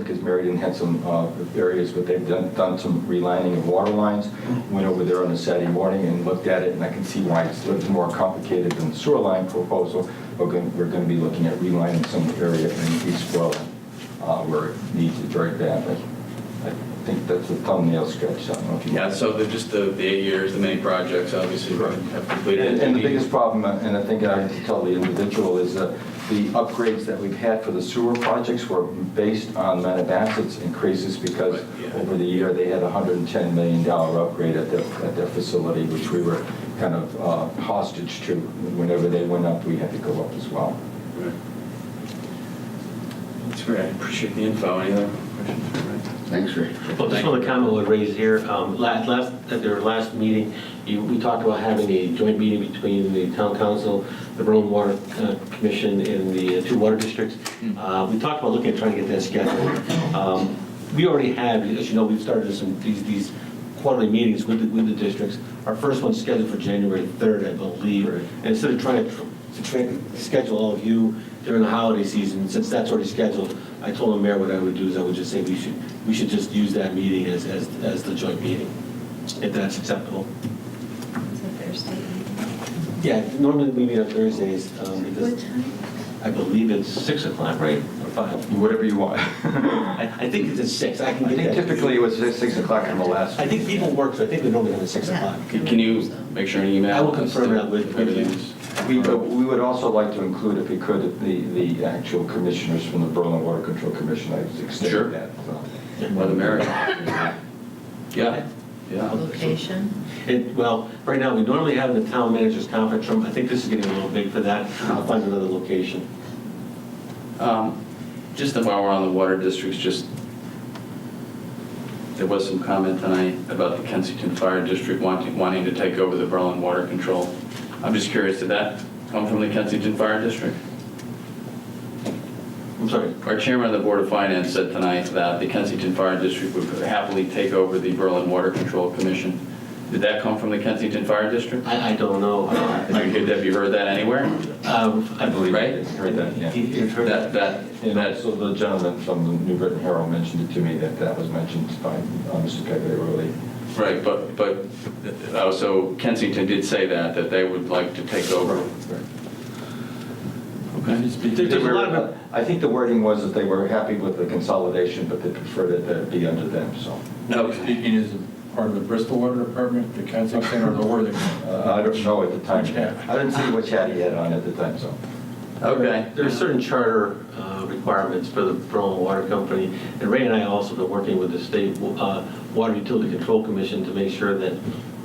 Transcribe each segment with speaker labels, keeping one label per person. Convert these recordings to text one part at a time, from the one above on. Speaker 1: because Meriden had some uh, areas where they've done, done some relining of water lines. Went over there on a Saturday morning and looked at it, and I can see why it's a little more complicated than the sewer line proposal. We're going, we're going to be looking at relining some area in East Welland uh, where it needs it very badly. I think that's a thumbnail sketch, I don't know if you.
Speaker 2: Yeah, so the, just the, the eight years, the many projects obviously have completed.
Speaker 1: And and the biggest problem, uh, and I think I have to tell the individual, is that the upgrades that we've had for the sewer projects were based on Manabassett's increases because
Speaker 2: Right, yeah.
Speaker 1: over the year, they had a $110 million upgrade at their, at their facility, which we were kind of uh, hostage to. Whenever they went up, we had to go up as well.
Speaker 2: Right. That's great, I appreciate the info. Any other questions? for Ray?
Speaker 3: Thanks, Ray.
Speaker 4: Well, just one comment I would raise here, um, last, last, at their last meeting, you, we talked about having a joint meeting between the town council, the Berlin Water uh, Commission, and the uh, two water districts. Uh, we talked about looking at trying to get that scheduled. Um, we already have, as you know, we've started some, these, these quarterly meetings with, the- with the districts. Our first one's scheduled for January third, I believe.
Speaker 1: Right.
Speaker 4: And instead of trying to, tr- to tra- schedule all of you during the holiday season, since that's already scheduled, I told the mayor what I would do is I would just say we should, we should just use that meeting as, as, as the joint meeting, if that's acceptable.
Speaker 5: It's a Thursday evening.
Speaker 4: Yeah, normally we meet on Thursdays, um,
Speaker 5: What
Speaker 4: because
Speaker 5: time?
Speaker 4: I believe it's six o'clock, right, or five?
Speaker 1: Whatever you want.
Speaker 4: I,
Speaker 1: I
Speaker 4: I think it's at six, I can get
Speaker 1: think
Speaker 4: that.
Speaker 1: typically it was 6 o'clock on the last.
Speaker 4: I think people work, so I think we normally have at six
Speaker 5: Yeah.
Speaker 4: o'clock.
Speaker 2: Can- Can you make sure an email?
Speaker 4: I will confirm that with- with you.
Speaker 2: Everything's-
Speaker 1: We uh, we would also like to include, if we could, the the actual commissioners from the Berlin Water Control Commission. I was
Speaker 2: Sure.
Speaker 1: extending that. so.
Speaker 2: Well, the merit. Yeah, yeah.
Speaker 5: Location?
Speaker 4: It, well, right now, we normally have the town manager's conference room. I think this is getting a little big for that. I'll find another location.
Speaker 2: Um, Just that while we're on the water districts, just, there was some comment tonight about the Kensington Fire District wanting, wanting to take over the Berlin Water Control. I'm just curious, did that come from the Kensington Fire District?
Speaker 4: I'm sorry.
Speaker 2: Our chairman of the Board of Finance said tonight that the Kensington Fire District would happily take over the Berlin Water Control Commission. Did that come from the Kensington Fire District?
Speaker 4: I, I don't know.
Speaker 2: Have you heard that, have you heard that anywhere?
Speaker 4: Um, I believe.
Speaker 2: Right?
Speaker 1: I Heard that, yeah.
Speaker 4: You've heard
Speaker 2: That,
Speaker 4: that?
Speaker 2: that,
Speaker 1: And
Speaker 2: that,
Speaker 1: also the gentleman from the New Britain Herald mentioned it to me, that that was mentioned by uh, Mr. Cagliaroli.
Speaker 2: right, but, but, oh, so Kensington did say that, that they would like to take over. Okay.
Speaker 4: There- There's a lot of,
Speaker 1: uh, I think the wording was that they were happy with the consolidation, but they preferred that that be under them, so.
Speaker 6: Now, speaking as a part of the Bristol Water Department, the Kensington or the Worthing.
Speaker 1: uh, I don't know at the time.
Speaker 6: Which hat?
Speaker 1: I didn't see which hat he had on at the time, so.
Speaker 2: Okay.
Speaker 4: there are certain charter uh, requirements for the Berlin Water Company. And Ray and I also been working with the State uh, Water Utility Control Commission to make sure that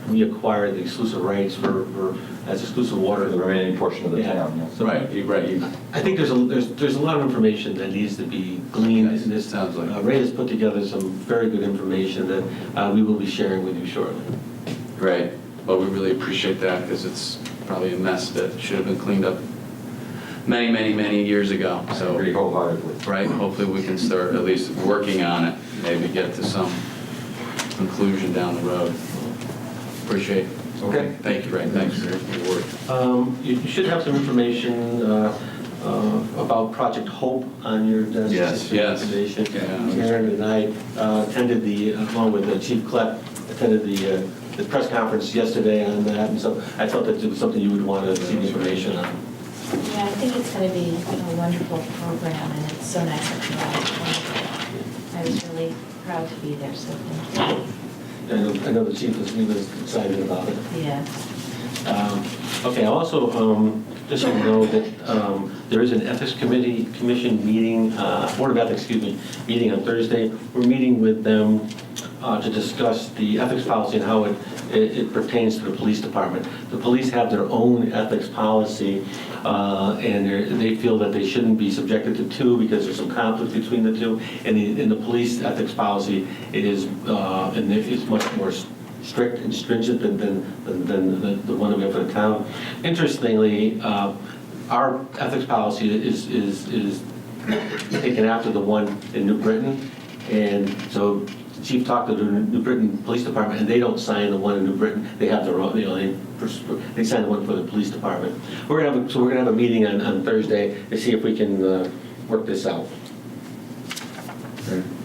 Speaker 4: we acquire the exclusive rights for, for- as exclusive water.
Speaker 1: For the remaining portion of the town, yes.
Speaker 4: So-
Speaker 2: Right, you, right, you,
Speaker 4: I think there's a, there's, there's a lot of information that needs to be gleaned in this.
Speaker 2: Sounds like it.
Speaker 4: Uh, Ray has put together some very good information that uh, we will be sharing with you shortly.
Speaker 2: right. Well, we really appreciate that, because it's probably a mess that should have been cleaned up many, many, many years ago,
Speaker 1: I
Speaker 2: so.
Speaker 1: agree wholeheartedly.
Speaker 2: right? Hopefully, we can start at least working on it, maybe get to some conclusion down the road. Appreciate it.
Speaker 1: Okay.
Speaker 2: Thank you, Ray, thanks for your work.
Speaker 4: Um, You you should have some information uh, uh, about Project Hope on your desk.
Speaker 2: Yes, yes.
Speaker 4: Information.
Speaker 2: Yeah.
Speaker 4: Karen and I uh, attended the, along with uh, Chief Klepp, attended the, uh, the press conference yesterday on that, and so I thought that it was something you would want to see information on.
Speaker 5: Yeah, I think it's going to be a wonderful program, and it's so nice that you're all. I was really proud to be there, so thank
Speaker 4: I know- I know the chief was, he was excited about it.
Speaker 5: you. Yeah.
Speaker 4: Um, Okay, I also, um, just so you know that um, there is an Ethics Committee, Commission meeting, uh, Board of Ethics, excuse me, meeting on Thursday. We're meeting with them uh, to discuss the ethics policy and how it it it pertains to the police department. The police have their own ethics policy, uh, and they're- they feel that they shouldn't be subjected to two because there's some conflict between the two. And the, and the police ethics policy is, uh, and it's much more strict and stringent than, than, than- than the- the one that we have for the town. Interestingly, uh, our ethics policy is, is, is taken after the one in New Britain. And so the chief talked to the New Britain Police Department, and they don't sign the one in New Britain. They have their own, you know, they, pers- they sign the one for the police department. We're gonna have, a- so we're gonna have a meeting on, on Thursday to see if we can uh, work this out.
Speaker 1: Right.